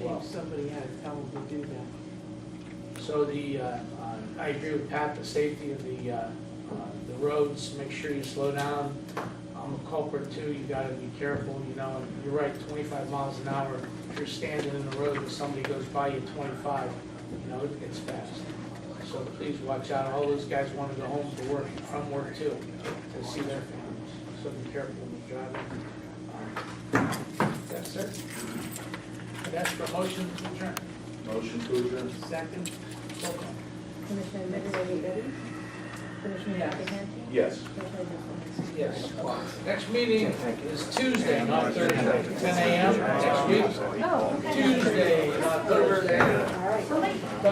Well, somebody had to tell them to do that. So the, uh, uh, I agree with Pat, the safety of the, uh, uh, the roads, make sure you slow down. I'm a culprit too, you gotta be careful, you know, and you're right, twenty-five miles an hour, if you're standing in the road and somebody goes by you at twenty-five, you know, it gets fast. So please watch out, all those guys wanna go home to work, from work too, to see their families, so be careful when you're driving. Yes, sir. I'd ask for a motion to adjourn. Motion to adjourn. Second, Roll call. Commissioner Midgley Duffy? Commissioner Yes. Buckingham? Yes. Commissioner Duffy? Yes. Next meeting is Tuesday, not Thursday, ten AM next week. Oh, okay. Tuesday, not Thursday.